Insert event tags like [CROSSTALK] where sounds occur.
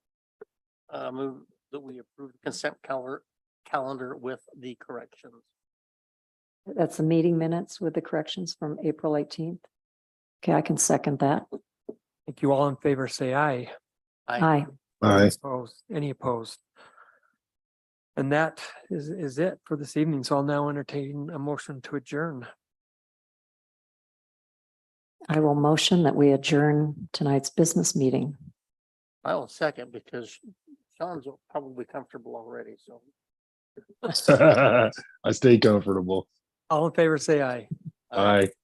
uh, move that we approve the consent calendar, calendar with the corrections. That's the meeting minutes with the corrections from April eighteenth. Okay, I can second that. Thank you. All in favor, say aye. Aye. Aye. Opposed, any opposed? And that is, is it for this evening. So I'll now entertain a motion to adjourn. I will motion that we adjourn tonight's business meeting. I will second because Sean's probably comfortable already, so. [LAUGHS] I stay comfortable. All in favor, say aye. Aye.